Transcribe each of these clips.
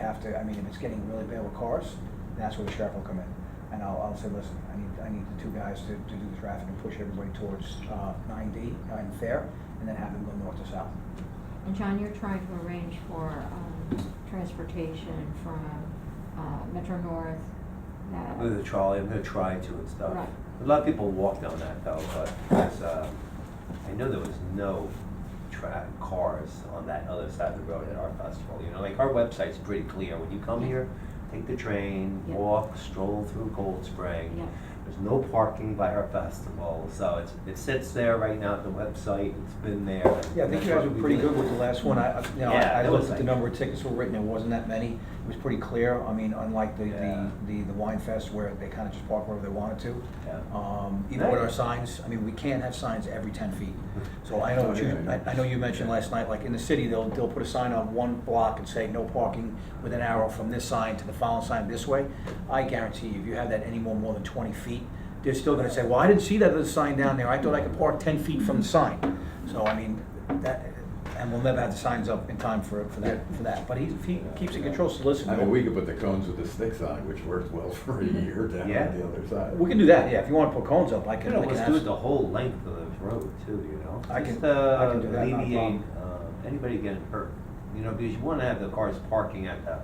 to, I mean, if it's getting really bad with cars, that's where the sheriff will come in. And I'll, I'll say, listen, I need, I need the two guys to, to do the traffic and push everybody towards, uh, nine D, nine Fair, and then have them go north to south. And John, you're trying to arrange for um, transportation from uh, Metro North, that. With the trolley, I'm gonna try to and stuff. Right. A lot of people walk down that though, but there's, uh, I know there was no tra- cars on that other side of the road at our festival, you know, like our website's pretty clear. When you come Yeah. here, take the train, Yeah. walk, stroll through Gold Spring. Yeah. There's no parking by our festival, so it's, it sits there right now, at the website, it's been there. and Yeah, I think that's you guys what were we pretty did. good with the last one. I, I- you know, Yeah, I I that looked was at the like- number of tickets that were written, there wasn't that many. It was pretty clear. I mean, unlike the, Yeah. the, the the Wine Fest where they kind of just park wherever they wanted to. Yeah. Um, even with our Nice. signs, I mean, we can't have signs every ten feet. So I know, what you- I, I know you mentioned last night, like in the city, they'll, they'll put a sign on one block and say, no parking with an arrow from this sign to the following sign this way. I guarantee you, if you have that anymore more than twenty feet, they're still gonna say, well, I didn't see that other sign down there. I thought I could park ten feet from the sign. So I mean, that, and we'll never have the signs up in time for, for that, for that. But he, if he keeps in control, so listen. I mean, we could put the cones with the sticks on, which worked well for a year down on Mm-hmm. Yeah. the other side. We can do that, yeah. If you wanna put cones up, I You can, know, I can let's do it ask. the whole length of the road too, you know? I can- Just, uh, I can do that, not a Alleviate, uh, anybody getting hurt, you know, because you wanna have the cars parking at the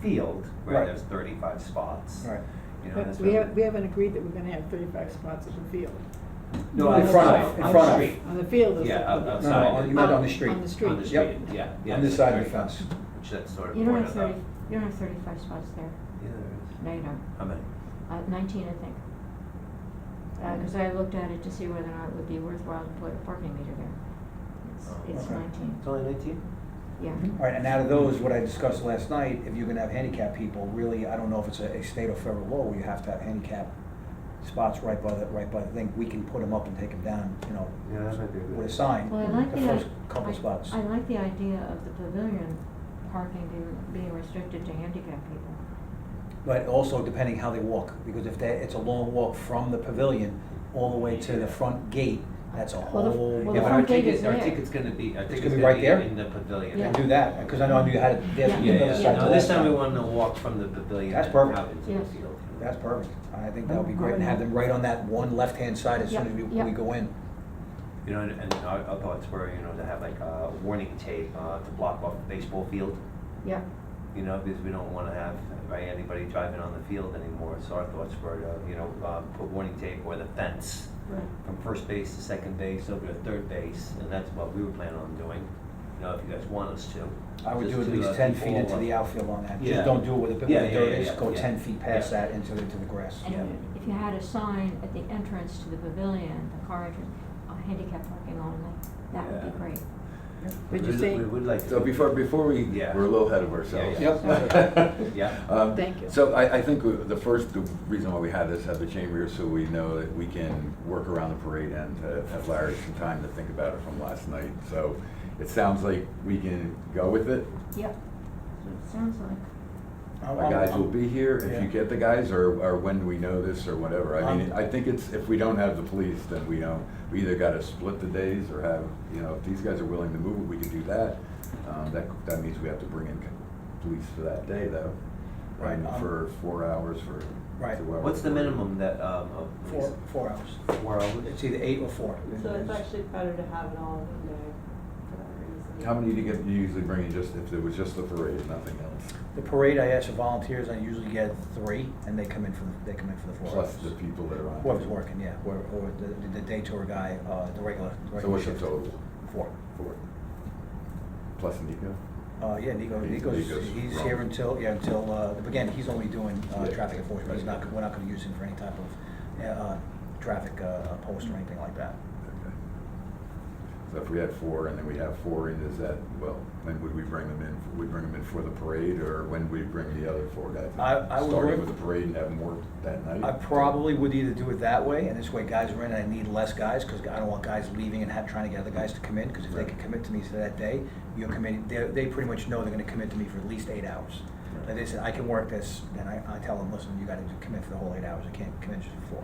field where Right. there's thirty-five spots. Right. You know, But that's. we what- haven't, we haven't agreed that we're gonna have thirty-five spots at the field. No, In on the front side, of- in on the front of. street. On the field is. Yeah, out- the- No, outside. no, you meant on the street. On the Um, street. On the Yep. street, yeah, yeah. On this side of the 35, fence. Which that's sort of. You don't have pointed out. thirty, you don't have thirty-five spots there. Yeah, there No, you don't. is. How many? Uh, Nineteen, I think. Mm-hmm. Because I looked at it to see whether or not it would be worthwhile to put a parking meter there. It's- Oh, It's okay. mm-hmm. nineteen, It's only nineteen? yeah. All right, and out of those, what I discussed last night, if you're gonna have handicap people, really, I don't know if it's a, a state or federal law where you have to have handicap spots right by the, right by the thing, we can put them up and take them down, you know, Yeah, that might be a good. with a sign, Well, I like the the, first i- couple I- spots. I like the idea of the pavilion parking being, being restricted to handicap people. But also depending how they walk, because if they, it's a long walk from the pavilion all the way to the front gate, that's a Well, the- whole. well, Yeah, the but different- our front gate is ticket, our there. ticket's gonna be, our ticket's gonna be gonna right be there? in the pavilion. Yeah. And do that, because I know I knew how to, there's Yeah. the Yeah, other yeah, side yeah. to No, this that time we side. wanted to walk from the pavilion. That's and perfect. Out into the Yes. field. That's perfect, I think that would be great, and have them right on that one left-hand side as soon as we, Yep, yep. we go in. You know, and, and our, our thoughts were, you know, to have like a warning tape, uh, to block off the baseball field, Yeah, you know, because we don't wanna have, right, anybody driving on the field anymore, so our thoughts were to, you know, uh, put warning tape or the fence right. from first base to second base over to third base, and that's what we were planning on doing, you know, if you guys want us to. I would Just do at to, least uh, ten keep feet all into of- the outfield on that, Yeah. just don't do it with a bit Yeah, where the yeah, dirt yeah, is, yeah, go yeah. ten feet past Yeah. that into, into the grass. Yeah. And if you had a sign at the entrance to the pavilion, the car entrance, uh, handicap parking only, that would Yeah. be great. We Um, But you would- say, We would like. to- So before, before we, Yeah. we're a little ahead of ourselves. Yeah, yeah. Yeah. Um, Thank you. So I, I think we- the first, the reason why we had this at the chamber is so we know that we can work around the parade and to have Larry some time to think about it from last night. So it sounds like we can go with it. Yep. So it sounds like, I'm- My I'm- guys will be here if Yeah. you get the guys, or, or when do we know this, or whatever. I mean, Um, I think it's, if we don't have the police, then we don't, we either gotta split the days or have, you know, if these guys are willing to move, it, we can do that. Um, that, that means we have to bring in police for that day, though. Right, And um, For four hours, for Right. two hours. What's the minimum that, um, of? Four, four hours. Four hours? It's either eight or four. So it's actually better to have it all in one day for that reason. How many do you get, you usually bring in just, if it was just the parade, nothing else? The parade, I ask for volunteers, I usually get three, and they come in for, the- they come in for the four Plus hours. the people that are on. Whoever's working, yeah, or, or the, the day tour guy, uh, the regular. the So regular what's the shift. total? Four. Four. Plus Nico? Uh, yeah, Nico, He- Nico's, Nico's he's wrong. here until, yeah, until, uh, again, he's only doing, uh, Yeah. traffic enforcement, he's not, we're not gonna use him for any type of, uh, traffic, uh, post or anything like that. Okay. So if we had four and then we have four in, is that, well, when would we bring them in? Would we bring them in for the parade or when would we bring the other four guys? in? I- I would Starting work- with the parade and have them work that night? I probably would either do it that way, and this way guys are in, and I need less guys, because I don't want guys leaving and have, trying to get other guys to come in, because if they Right. can commit to me for that day, you're committing, they, they pretty much know they're gonna commit to me for at least eight hours. Right. Like they said, I can work this, then I, I tell them, listen, you gotta commit for the whole eight hours, I can't commit just for four.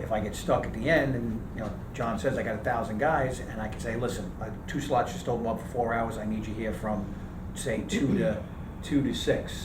If I get stuck at the end and, you know, John says I got a thousand guys and I can say, listen, uh, two slots just open up for four hours, I need you here from, say, two to, two to six.